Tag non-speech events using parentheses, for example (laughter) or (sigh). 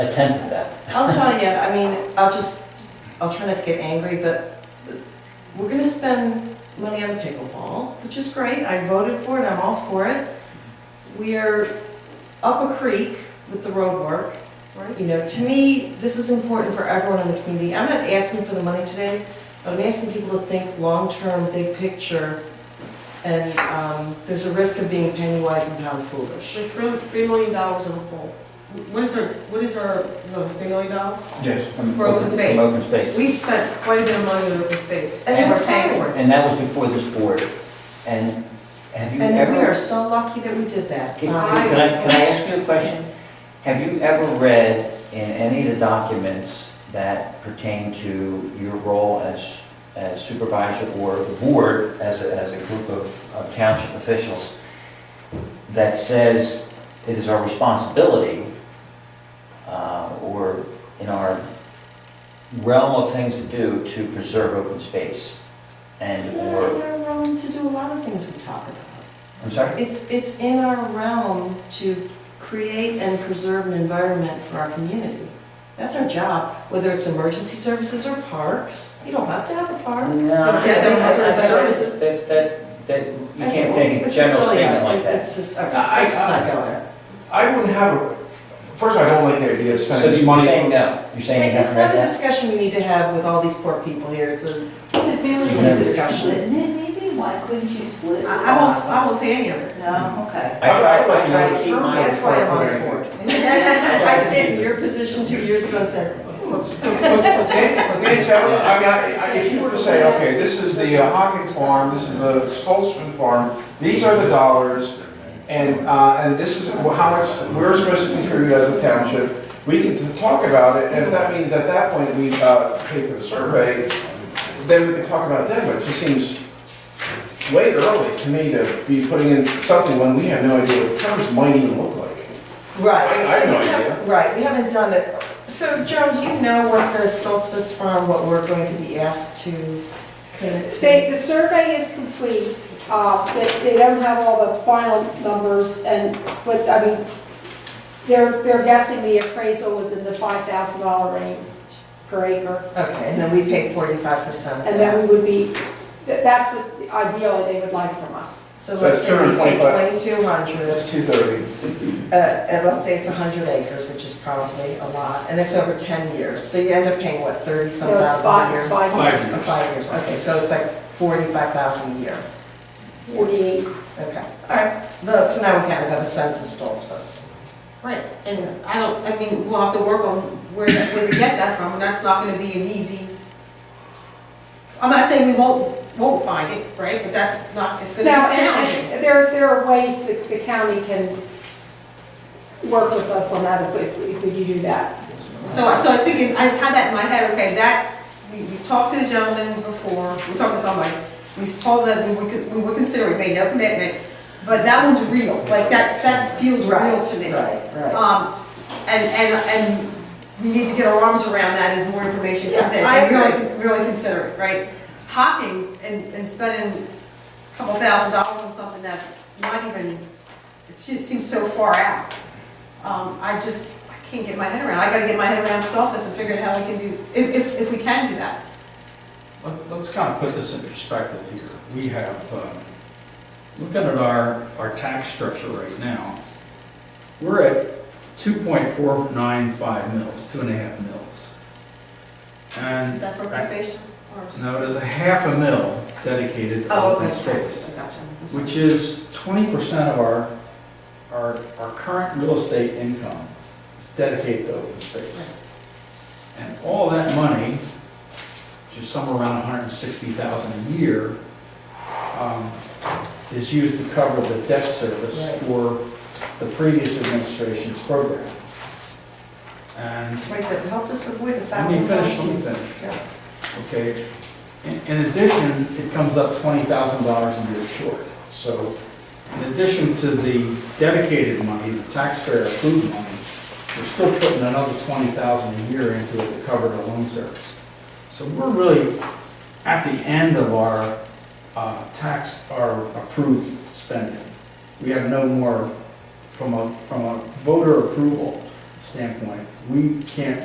attempt at that. I'll tell you, I mean, I'll just, I'll try not to get angry, but we're gonna spend money on pickleball, which is great, I voted for it, I'm all for it. We are up a creek with the road work. You know, to me, this is important for everyone in the community. I'm not asking for the money today, but I'm asking people to think long-term, big picture. And, um, there's a risk of being penny wise and pound foolish. We're throwing three million dollars in the hole. What is our, what is our, no, three million dollars? Yes. From For open space. From open space. We've spent quite a bit of money on open space. And we're it's paying for it. And that was before this board. And have you And we are ever, so lucky that we did that. can can Um, I, can I ask you a question? Have you ever read in any of the documents that pertain to your role as as supervisor or the board as a, as a group of of township officials that says it is our responsibility uh, or in our realm of things to do to preserve open space and It's not in or, our realm to do a lot of things we talk about. I'm sorry? It's, it's in our realm to create and preserve an environment for our community. That's our job, whether it's emergency services or parks. You don't have to have a park. No. Yeah, that's I- I- just I- services. That, that, that, you can't make a It's just general silly, statement like that. It's just, okay, I- let's just not I- go there. I wouldn't have, a first, I don't like the idea of So spending you're money. saying no, you're saying you It's haven't not read a that? discussion we need to have with all these poor people here. It's a, The families Split it. can discuss it, and then maybe, why couldn't you split? it? I, I won't, I won't pay any of it. No, okay. I try, I'd like I to try know to the keep term. mine, that's why I'm on the board. (laughs) I sat in your position two years ago and said, "Hmm, let's, let's, let's Okay, okay, so, I mean, I- I- if you were to say, okay, this is the uh, Hawkins farm, this is the Spolston farm, these are the dollars, and, uh, and this is how much we're supposed to contribute as a township, we can t- talk about it, and if that means at that point we uh, pay for the survey, then we can talk about it then, but it just seems way early to me to be putting in something when we have no idea what the terms might even look like. Right. I- I have no so we have- idea. Right, we haven't done it. So Joan, do you know what the Stolzfus Farm, what we're going to be asked to commit to? They, the survey is complete, uh, they, they don't have all the final numbers and, but, I mean, they're, they're guessing the appraisal was in the five thousand dollar range per acre. Okay, and then we pay forty-five percent. And then we would be, that- that's what ideally they would like from us. So So let's it's say we pay 225. twenty-two hundred, That's two thirty. uh, and let's say it's hundred acres, which is probably a lot, and it's over ten years. So you end up paying, what, thirty-some So it's thousand a five, year? it's five Five. years, Uh, Five years, okay, so it's like forty-five thousand a year. forty-eight. Okay, all right. The- So now we kind of have a sense of Stolzfus. (laughs) Right, and I don't, I mean, we'll have to work on where, that- where we get that from, and that's not gonna be an easy. I'm not saying we won't, won't find it, right, but that's not, it's gonna Now, be and- challenging. and there, there are ways that the county can work with us on that if, if if we do do that. So, I- so I think, in- I had that in my head, okay, that, we, we talked to the gentleman before, we talked to somebody, we told them we could, we would consider it, made no commitment, but that one's real, like, that, that feels real to me. Right, right. Um, and, and, and we need to get our arms around that as more information comes in. Yeah, I and really- agree. Really consider it, right? Hawkins and, and spending a couple thousand dollars on something that's not even, it just seems so far out. Um, I just, I can't get my head around, I gotta get my head around Stolfus and figure out how we can do, if, if, if we can do that. Let- Let's kind of put this in perspective here. We have, um, looking at our, our tax structure right now, we're at 2.495 mils, two and a half mils. And Is that for participation or? now there's a half a mil dedicated to Oh, okay, open gotcha, space, gotcha. I'm sorry. which is 20% of our, our, our current real estate income is dedicated to open space. And all that money, which is somewhere around $160,000 a year, um, is used to cover the debt service Right. for the previous administration's program. And Right, that helped us avoid a Let me thousand finish, let me questions. finish. Okay, in, in addition, it comes up twenty thousand dollars a year short. So in addition to the dedicated money, the taxpayer approved money, we're still putting another twenty thousand a year into it to cover the loan service. So we're really at the end of our, uh, tax, our approved spending. We have no more from a, from a voter approval. standpoint, we can't